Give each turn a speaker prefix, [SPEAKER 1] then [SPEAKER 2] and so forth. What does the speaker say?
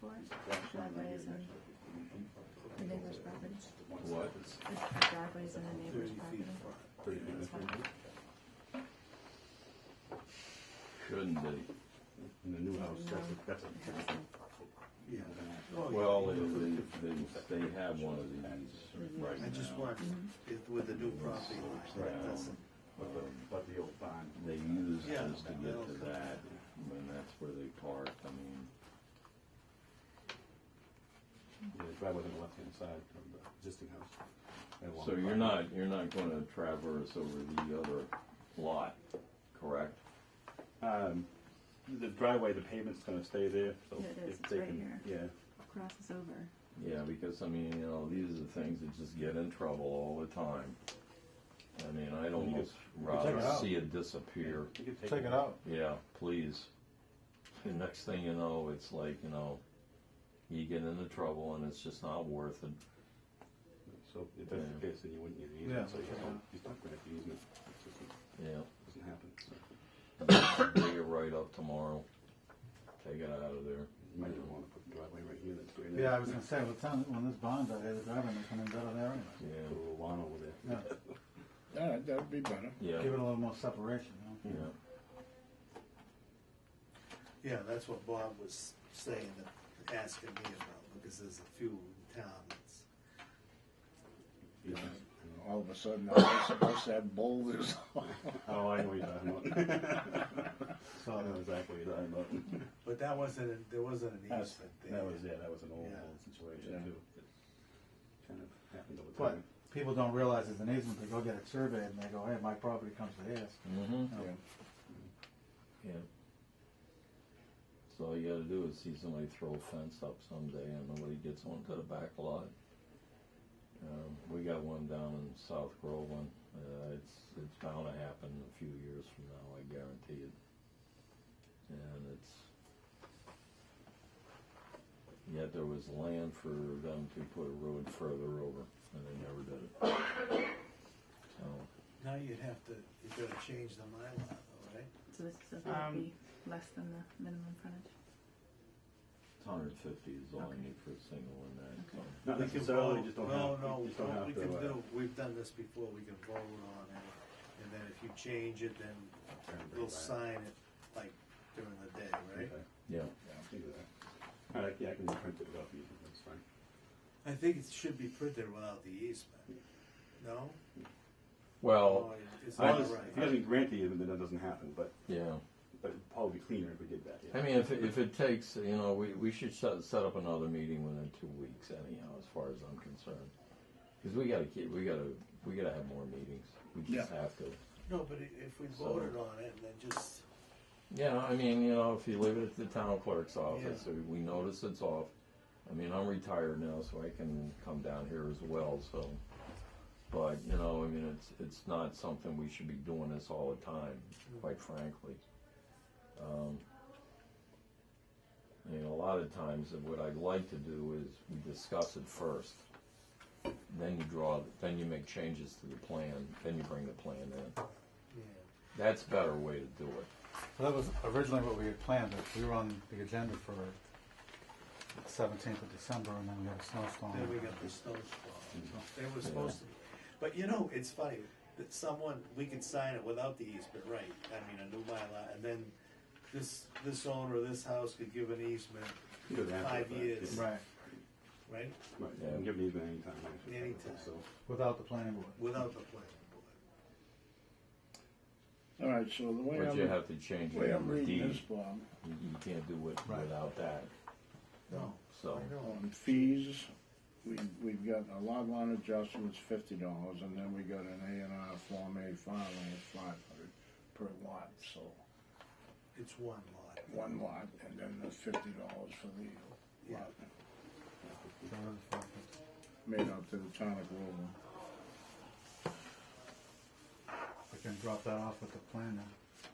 [SPEAKER 1] for it? Driveways and the neighbor's property?
[SPEAKER 2] What?
[SPEAKER 1] The driveways and the neighbor's property?
[SPEAKER 2] Thirty minutes from here? Shouldn't be.
[SPEAKER 3] In the new house, that's a,
[SPEAKER 1] No.
[SPEAKER 3] that's a
[SPEAKER 1] It has to.
[SPEAKER 4] Oh, Yeah.
[SPEAKER 2] Well, they, they, they, they have one of these right
[SPEAKER 4] I just
[SPEAKER 2] now.
[SPEAKER 4] watched it with the new property line,
[SPEAKER 2] Right.
[SPEAKER 4] that's,
[SPEAKER 3] but the, but the old barn.
[SPEAKER 2] They use
[SPEAKER 4] Yeah.
[SPEAKER 2] this to get to that, and that's where they park, I mean,
[SPEAKER 3] Yeah, the driveway on the left-hand side from the existing house. And along
[SPEAKER 2] so
[SPEAKER 3] the
[SPEAKER 2] you're
[SPEAKER 3] property.
[SPEAKER 2] not, you're not gonna traverse over the other lot, correct?
[SPEAKER 3] Um, the driveway, the pavement's gonna stay there, so.
[SPEAKER 1] Yeah, it is.
[SPEAKER 3] if
[SPEAKER 1] It's
[SPEAKER 3] they
[SPEAKER 1] right
[SPEAKER 3] can-
[SPEAKER 1] Crosses over.
[SPEAKER 2] Yeah, because, I mean, you know, these are the things that just get in trouble all the time. I mean, I'd
[SPEAKER 3] you
[SPEAKER 2] almost
[SPEAKER 3] take
[SPEAKER 2] rather
[SPEAKER 3] it out.
[SPEAKER 2] see it disappear.
[SPEAKER 3] Yeah. You can
[SPEAKER 5] Take it out.
[SPEAKER 2] Yeah, please. The next thing you know, it's like, you know, you get into trouble and it's just not worth it.
[SPEAKER 3] So if that's the
[SPEAKER 2] Yeah.
[SPEAKER 3] case, then you wouldn't need an
[SPEAKER 5] Yeah.
[SPEAKER 3] easement, so you don't, you don't grant the easement, it doesn't,
[SPEAKER 2] Yeah.
[SPEAKER 3] doesn't happen, so.
[SPEAKER 2] Bring it right up tomorrow. Take it out of there.
[SPEAKER 3] You might not wanna put the driveway right here, that's great.
[SPEAKER 5] Yeah, I was gonna say, with town, when this uh, bond's out here, the driveway may come in better there anyway.
[SPEAKER 3] Put
[SPEAKER 2] Yeah,
[SPEAKER 3] a little lawn over there.
[SPEAKER 5] Yeah,
[SPEAKER 6] Yeah, that'd be better.
[SPEAKER 2] yeah,
[SPEAKER 5] give it a little more separation, you
[SPEAKER 2] yeah.
[SPEAKER 5] know?
[SPEAKER 4] yeah, that's what Bob was saying, that- asking me about, because there's a few in town that's,
[SPEAKER 3] Yeah.
[SPEAKER 6] All of a sudden, I'm supposed to have boulders.
[SPEAKER 3] Oh, I know what you're talking about.
[SPEAKER 5] So, uh,
[SPEAKER 3] I know exactly what you're talking about.
[SPEAKER 4] but that wasn't, a- there wasn't an
[SPEAKER 3] That's,
[SPEAKER 4] easement there.
[SPEAKER 3] that was, yeah, that was an old,
[SPEAKER 4] Yeah.
[SPEAKER 3] old situation
[SPEAKER 6] Yeah.
[SPEAKER 3] too. It Kind of happened over
[SPEAKER 5] but
[SPEAKER 3] time.
[SPEAKER 5] people don't realize there's an easement, they go get it surveyed and they go, hey, my property comes to theirs.
[SPEAKER 2] Mm-hmm,
[SPEAKER 5] You know,
[SPEAKER 6] Yeah.
[SPEAKER 2] yeah. So all you gotta do is see somebody throw a fence up someday and nobody gets onto the back lot. Um, we got one down in South Groveland. Uh, it's, it's bound to happen a few years from now, I guarantee it. And it's, yet there was land for them to put a road further over and they never did it. So.
[SPEAKER 4] Now you'd have to, you'd gotta change the Mylar, though, right?
[SPEAKER 1] So this is, that would be less than the minimum frontage?
[SPEAKER 2] Hundred fifty is all
[SPEAKER 1] Okay.
[SPEAKER 2] I need for a single in that, so.
[SPEAKER 3] Not
[SPEAKER 4] We can
[SPEAKER 3] necessarily,
[SPEAKER 4] vote.
[SPEAKER 3] just don't
[SPEAKER 4] No,
[SPEAKER 3] have,
[SPEAKER 4] no,
[SPEAKER 3] you just don't
[SPEAKER 4] what we
[SPEAKER 3] have to,
[SPEAKER 4] can
[SPEAKER 3] uh,
[SPEAKER 4] do, we've done this before, we can vote on it, and then if you change it, then we'll sign it, like, during the day, right?
[SPEAKER 3] Okay.
[SPEAKER 2] Yeah.
[SPEAKER 3] Yeah, I'll do that. All right, yeah, I can print it without the easement, that's fine.
[SPEAKER 4] I think it should be printed without the easement, no?
[SPEAKER 2] Well,
[SPEAKER 4] No, It's
[SPEAKER 3] I
[SPEAKER 4] not
[SPEAKER 3] just, if he
[SPEAKER 4] right.
[SPEAKER 3] doesn't grant the easement, then that doesn't happen, but,
[SPEAKER 2] yeah,
[SPEAKER 3] but it'd probably be cleaner if we did that,
[SPEAKER 2] I
[SPEAKER 3] yeah.
[SPEAKER 2] mean, if, if it takes, you know, we, we should set, set up another meeting within two weeks anyhow, as far as I'm concerned. Cause we gotta keep, we gotta, we gotta have more meetings, we just have to.
[SPEAKER 4] No, but i- if we
[SPEAKER 2] So-
[SPEAKER 4] voted on it, and then just,
[SPEAKER 2] Yeah, I mean, you know, if you leave it at the town clerk's office,
[SPEAKER 4] Yeah.
[SPEAKER 2] or we notice it's off. I mean, I'm retired now, so I can come down here as well, so. But, you know, I mean, it's, it's not something we should be doing this all the time, quite frankly. Um, I mean, a lot of times, what I'd like to do is we discuss it first. Then you draw, then you make changes to the plan, then you bring the plan in.
[SPEAKER 4] yeah,
[SPEAKER 2] That's a better way to do it.
[SPEAKER 5] So that was originally what we had planned, but we were on the agenda for seventeenth of December and then we had a snowstorm.
[SPEAKER 4] then we got the snowstorm, they were supposed to, but you know, it's funny, that someone, we can sign it without the easement, right? I mean, a new Mylar, and then this, this owner of this house could give an easement,
[SPEAKER 3] You could have
[SPEAKER 4] Five
[SPEAKER 3] it, but-
[SPEAKER 4] years.
[SPEAKER 5] Right,
[SPEAKER 4] right,
[SPEAKER 3] Right, you can give an easement anytime, actually.
[SPEAKER 4] Anytime.
[SPEAKER 3] So,
[SPEAKER 5] without the planning board.
[SPEAKER 4] without the planning board.
[SPEAKER 6] All right, so the way
[SPEAKER 2] But you
[SPEAKER 6] I'm,
[SPEAKER 2] have to change
[SPEAKER 6] way
[SPEAKER 2] your
[SPEAKER 6] I'm reading
[SPEAKER 2] deed.
[SPEAKER 6] this, Bob,
[SPEAKER 2] You you can't do it
[SPEAKER 5] Right.
[SPEAKER 2] without that,
[SPEAKER 4] No,
[SPEAKER 2] so.
[SPEAKER 4] I know.
[SPEAKER 6] on fees, we, we've got a lot line adjustments, fifty dollars, and then we got an A and R Form A filing, it's five hundred per lot, so
[SPEAKER 4] It's one lot.
[SPEAKER 6] one lot, and then the fifty dollars for the lot,
[SPEAKER 5] So it was for-
[SPEAKER 6] made up to the town of Groveland.
[SPEAKER 5] We can drop that off with the plan then.